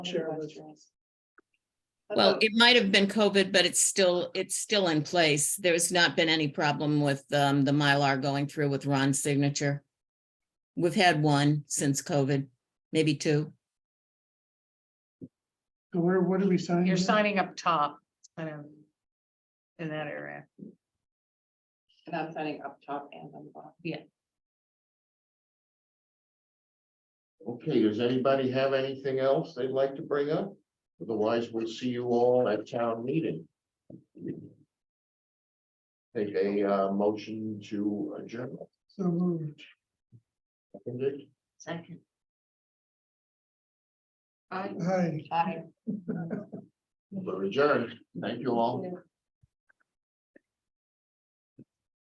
Share Hundred with- Western's. Well, Okay. it might have been COVID, but it's still, it's still in place. There's not been any problem with um, the Mylar going through with Ron's signature. We've had one since COVID, maybe two. So where, what are we signing? You're here? signing up top, kind of. In that area. And I'm signing up top and on the bottom. Okay, does anybody have anything else they'd like to bring up? Otherwise, we'll see you all at town meeting. Take a uh motion to adjourn. So moved. Seconded? Second. Hi. Aye. We're adjourned. Thank you all.